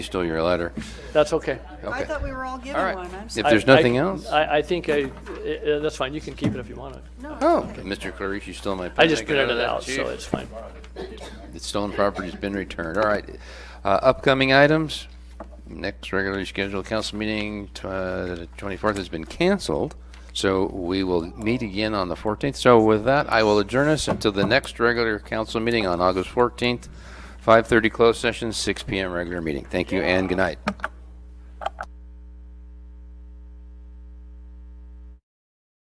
Based on your letter. That's okay. Okay. I thought we were all All given right. one. I'm If sorry. there's I- I- nothing else? I, I think I, uh, uh, that's fine, you can keep it if you want it. Oh, Mr. Clarice, you still my pen. I just got printed it that, out, so Chief. it's fine. The stolen property's been returned. All right. Uh, Upcoming items, next regularly scheduled council meeting, tw- uh, the 24th has been canceled, so we will meet again on the 14th. So with that, I will adjourn us until the next regular council meeting on August 14th, 5:30 closed session, 6 PM regular meeting. Thank you and good night.